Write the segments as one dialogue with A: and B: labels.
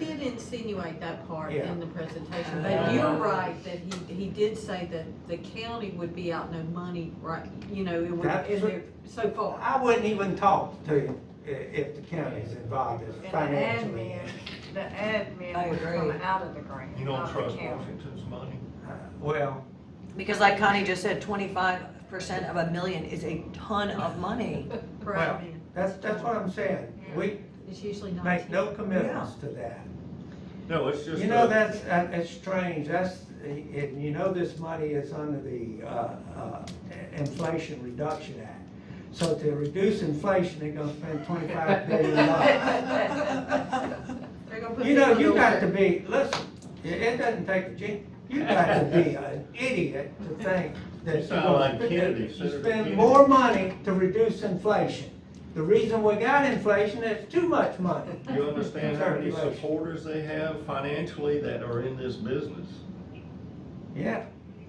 A: did insinuate that part
B: Yeah.
A: in the presentation,
C: Yeah.
A: but you're right that he, he did say that the county would be out no money, right, you know, it would,
B: That's
A: in
B: what-
A: their, so far.
B: I wouldn't even talk to you i- if the county's involved as
D: And the
B: financially.
D: admin, the admin
C: I
D: would
C: agree.
D: come out of the grant,
E: You
D: not
E: don't
D: the
E: trust
D: county.
E: Washington's money?
B: Uh, Well,
C: Because like Connie just said, twenty-five percent of a million is a ton of money.
A: for
B: Well,
A: admin.
B: that's, that's what I'm saying. We
A: It's usually not.
B: make no commitments to that.
E: No, it's just.
B: You know,
E: a-
B: that's, uh, that's strange, that's, and you know this money is under the, uh, uh, Inflation Reduction Act. So to reduce inflation, they're gonna spend twenty-five billion dollars.
A: They're gonna put
B: You know,
A: people
B: you
A: to
B: got
A: work.
B: to be, listen, it, it doesn't take a gen, you got to be an idiot to think that.
E: You sound
B: you're gonna
E: like
B: spend-
E: Kennedy,
B: You
E: Senator
B: spend
E: Kennedy.
B: more money to reduce inflation. The reason we got inflation is too much money.
E: You understand how many
B: Circulation.
E: supporters they have financially that are in this business
B: Yeah,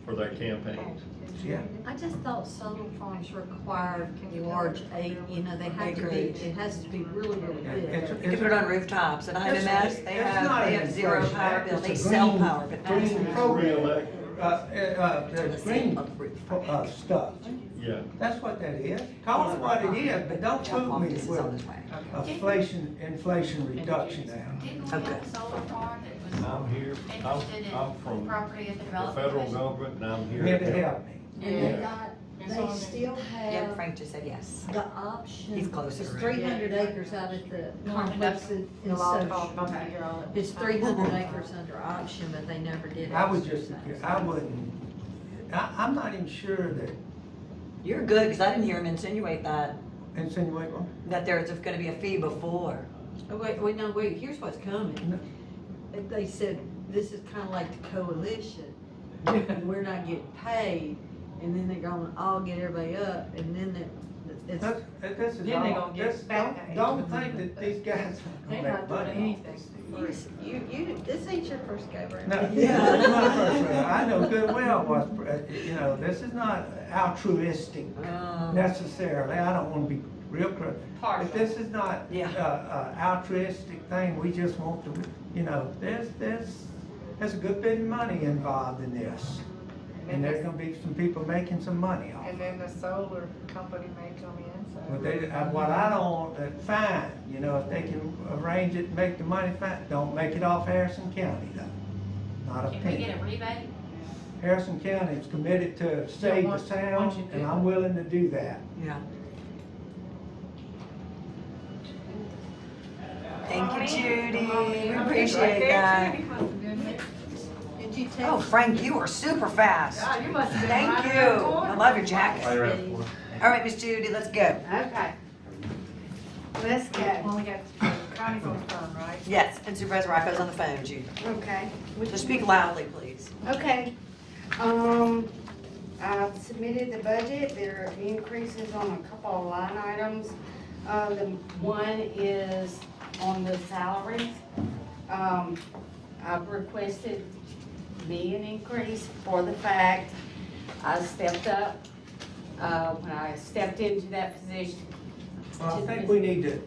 E: for their campaigns?
B: yeah.
A: I just thought solar farms required large eight, you know, they have to be,
C: Acreage.
A: it has to be really, really
B: Yeah,
A: big.
B: it's-
C: You can put it on rooftops and I
B: It's-
C: imagine they
B: it's
C: have,
B: not
C: they
B: an
C: have zero
B: inflation
C: power
B: act,
C: bill,
B: it's
C: they
B: a
C: sell
B: green-
C: power, but that's
B: Green
C: not.
B: program,
E: Reelect-
B: uh, uh, the green, uh, stuff,
E: Yeah,
B: that's what that is. Call it what it is, but don't
C: Jeff
B: fool me
C: Loftus is on
B: with
C: his way.
B: inflation, inflation reduction act.
F: Didn't we have
C: Okay.
F: a solar farm that was
E: I'm here, I'm,
F: interested
E: I'm
F: in
E: from
F: property of the
E: the
F: development?
E: federal
F: Commission?
E: government and I'm here.
B: Here to help me.
G: And they
E: Yeah.
G: got,
D: It's on
G: they
D: there.
G: still
A: Um,
C: Yeah,
G: have
C: Frank just said yes.
G: the option.
C: He's closer,
G: It's
C: right?
G: three hundred acres out at the complex in in
D: The law called
G: Social.
D: bump it, you're all-
A: It's three hundred acres under option, but they never did.
B: I would just,
A: exercise.
B: I wouldn't, I, I'm not even sure that
C: You're good, because I didn't hear him insinuate that,
B: insinuate, well,
C: that there's gonna be a fee before.
A: Oh, Wait, wait, no, wait, here's what's
B: No.
A: coming. If They said, this is kinda like the coalition, and we're not getting paid, and then they're gonna all get everybody up, and then it- it's,
B: that's, that- this is
D: Then they
B: all,
D: gonna get
B: this, don't,
D: back.
B: don't think that these guys are
D: They
B: gonna
D: not
B: make
D: doing
B: money.
D: anything.
A: you, you, you, this ain't your first go around.
B: No,
C: Yeah.
B: this is my first round. I know good well what, you know, this is not altruistic
C: Um,
B: necessarily, I don't wanna be real critical. But
D: Partial.
B: this is not uh,
C: Yeah.
B: uh, altruistic thing, we just want to, you know, there's, there's, there's a good bit of money involved in this. And there's gonna be some people making some money off
D: And
B: it.
D: then the solar company may come in, so.
B: But they, uh, what I don't want, that fine, you know, if they can arrange it, and make the money, fine, don't make it off Harrison County though. Not a
F: Can we get
B: penny.
F: a rebate?
B: Harrison County is committed to save the
D: once- once you
B: sound,
D: do
B: and
D: it.
B: I'm willing to do that.
C: Yeah. Thank you, Judy, we appreciate that.
A: Did you
C: Oh,
A: text?
C: Frank, you are super fast.
D: God, you must have been
C: Thank
D: right
C: you.
D: around the corner.
C: I love your jacket.
A: Betty?
C: All right, Miss Judy, let's go.
G: Okay. Let's
D: Well,
G: go.
D: we got, Connie's on the phone, right?
C: Yes, and Supervisor Rocco's on the phone, Judy.
G: Okay.
C: So speak loudly, please.
G: Okay, um, I've submitted the budget, there are increases on a couple of line items. Uh, the one is on the salaries. Um, I've requested me an increase for the fact I stepped up, uh, when I stepped into that position.
B: Well, I think we need to,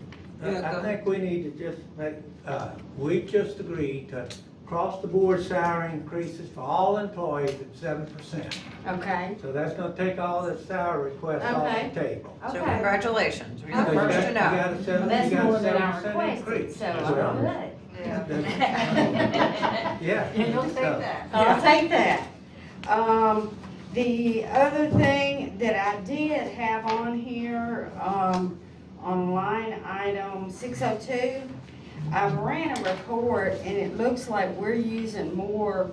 C: Yeah, go
B: I- I
C: ahead.
B: think we need to just make, uh, we just agreed to cross-the-board salary increases for all employees at seven percent.
G: Okay,
B: So that's gonna take all the salary requests off
G: Okay.
B: the table.
C: So
G: okay.
C: congratulations, you're the
G: Okay.
C: first to
B: You
C: know.
B: got a seven-
G: That's
B: you got a
G: more than I
B: 7%
G: requested,
B: increase.
G: so I'm good.
D: Yeah.
B: That's- Yeah.
D: Yeah, you'll take
B: So,
D: that.
G: I'll take that. Um, the other thing that I did have on here, um, on line item six oh two, I ran a report and it looks like we're using more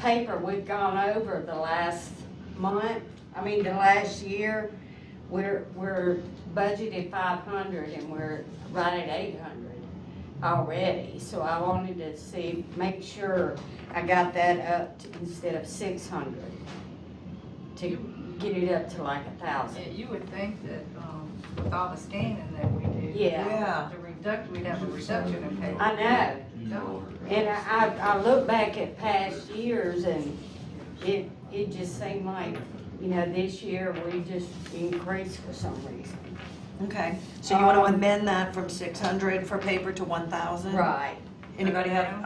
G: paper we've gone over the last month, I mean, the last year. We're, we're budgeted five hundred and we're right at eight hundred already, so I wanted to see, make sure I got that up to, instead of six hundred, to get it up to like a
D: Yeah,
G: thousand.
D: you would think that, um, with all the scanning that we do.
G: Yeah.
C: Yeah.
D: The reduct, we'd have a reduction in pay.
G: I know,
D: No.
G: and I, I, I look back at past years and it, it just seemed like, you know, this year we just increased for some reason.
C: Okay, so you want to
G: Um,
C: amend that from 600 for paper to 1,000?
G: Right.
C: Anybody have,